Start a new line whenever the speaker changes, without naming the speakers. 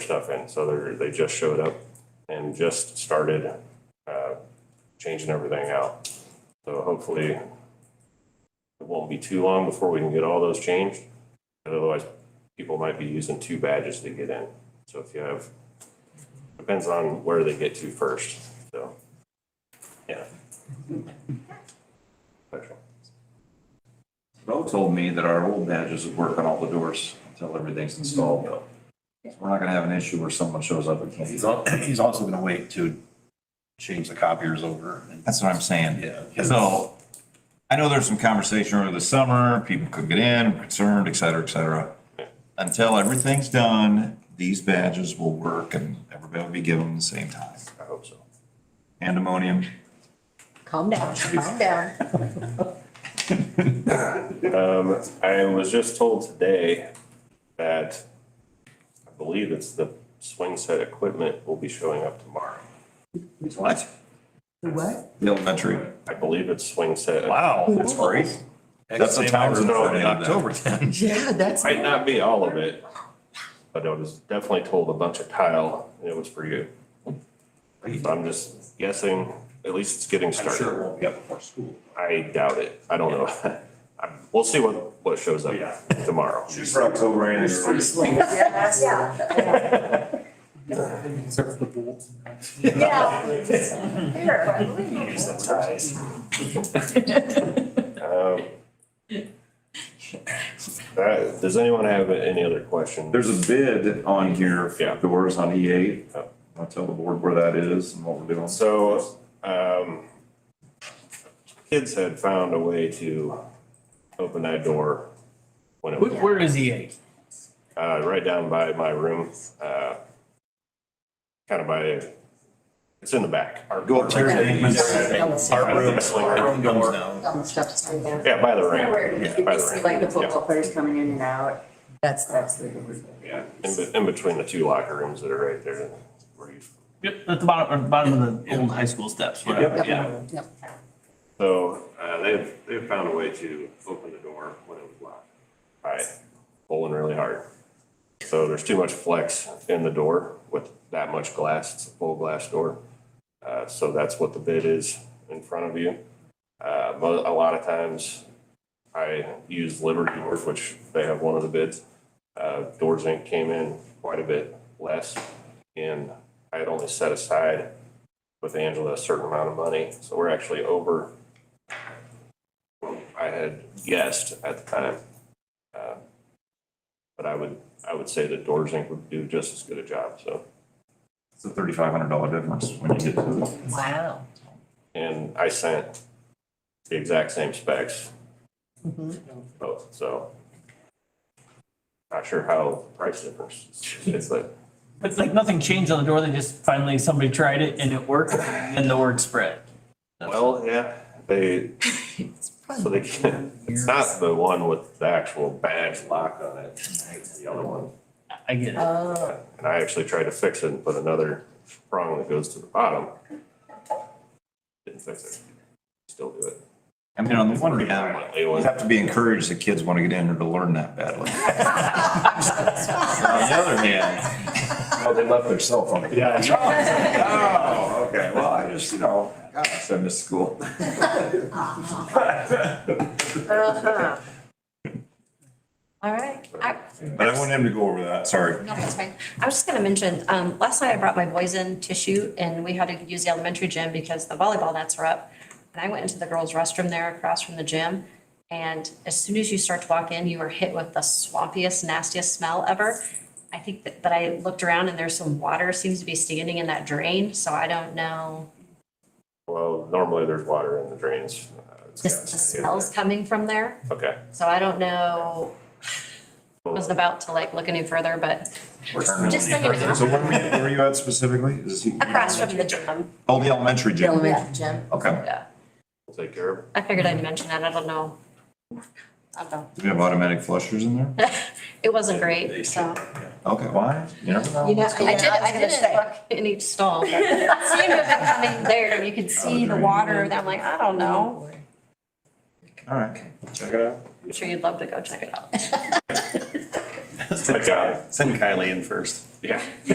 stuff in, so they're, they just showed up and just started, uh, changing everything out. So hopefully it won't be too long before we can get all those changed. But Otherwise, people might be using two badges to get in. So if you have, depends on where they get to first, so, yeah. Special.
Bo told me that our old badges would work on all the doors until everything's installed though. So We're not gonna have an issue where someone shows up and can't.
He's al- he's also gonna wait to change the copiers over. and-
That's what I'm saying.
Yeah.
So I know there's some conversation over the summer, people could get in, concerned, et cetera, et cetera. Until everything's done, these badges will work and everybody will be given them at the same time.
I hope so.
Pandemonium.
Calm down, calm down.
Um, I was just told today that I believe it's the swing set equipment will be showing up tomorrow.
What?
What?
The elementary.
I believe it's swing set.
Wow.
That's great. That's
That's
the
the
times
in
in Friday, then.
October then.
Yeah, that's.
Might not be all of it, but I was definitely told a bunch of tile and it was for you. So I'm just guessing, at least it's getting started.
it won't be up before school.
I doubt it. I don't know. I'm- We'll see what, what shows up
Yeah.
tomorrow.
for October
Yeah. Yeah.
Um, all right, does anyone have any other questions?
There's a bid on here
Yeah.
for doors on E eight.
Yeah.
I'll tell the board where that is and what we're doing.
So, um, kids had found a way to open that door when it was,
Where, where is E EA?
uh, right down by my room, uh, kind of by, it's in the back. Our
Go upstairs.
Art room, art room door.
Don't stop to say that.
Yeah, by the ramp,
Where
Yeah, by the ramp.
Like the football players coming in and out,
That's,
that's the word.
yeah, in, be- in between the two locker rooms that are right there. where you-
Yep, at the bottom, or bottom of the old high school steps, whatever,
Yep.
yeah.
Yep.
So, uh, they've, they've found a way to open the door when it was locked. By pulling really hard. So there's too much flex in the door with that much glass. It's a full glass door. Uh, so that's what the bid is in front of you. Uh, mo- a lot of times I use Liberty Doors, which they have one of the bids. Uh, Doors Inc. came in quite a bit less and I had only set aside with Angela a certain amount of money. So we're actually over what I had guessed at the time. Uh, But I would, I would say that Doors Inc. would do just as good a job, so.
It's a thirty-five hundred dollar difference when you get to it.
wow.
And I sent the exact same specs,
Mhm.
both, so. Not sure how price difference, is. it's like,
But like nothing changed on the door, they just finally, somebody tried it and it worked, and the word spread.
well, yeah, they, So they can't, it's not the one with the actual badge lock on it, it's the other one.
I get it.
Oh,
And I actually tried to fix it and put another prong that goes to the bottom. Didn't fix it, still do it.
I mean, on the one hand,
Predominantly
you
was-
have to be encouraged that kids want to get in there to learn that badly. On the other hand, well, they left their cell phone.
Yeah.
Oh, okay, well, I just, you know, gosh, I missed school.
uh-huh. All right,
I,
But I want him to go over that, sorry.
no, that's fine. I was just gonna mention, um, last night I brought my boys in to shoot and we had to use the elementary gym because the volleyball nets were up. And I went into the girls' restroom there across from the gym. And as soon as you start to walk in, you are hit with the swampiest, nastiest smell ever. I think that, but I looked around and there's some water seems to be standing in that drain, so I don't know.
Well, normally there's water in the drains. uh, it's
Just
gotta
the
stay in
smells coming from there,
there. Okay.
so I don't know. I
Well,
Wasn't about to like look any further, but just so
So
you know,
where were you- where were you at specifically? Is he-
across from the gym.
Oh, the elementary
the
gym,
elementary gym.
okay.
Yeah,
we'll Take care of it.
I figured I'd mention that, I don't know. I don't know,
Do we have automatic flushers in there?
it wasn't great, so.
Okay, why? You never know.
You know, I
I did, I
did
didn't look in each stall, but it seemed to have been coming there, and you could see the water, and I'm like, I don't know.
All right, check it out.
I'm sure you'd love to go check it out.
Good job.
Send Kylie in first.
Yeah.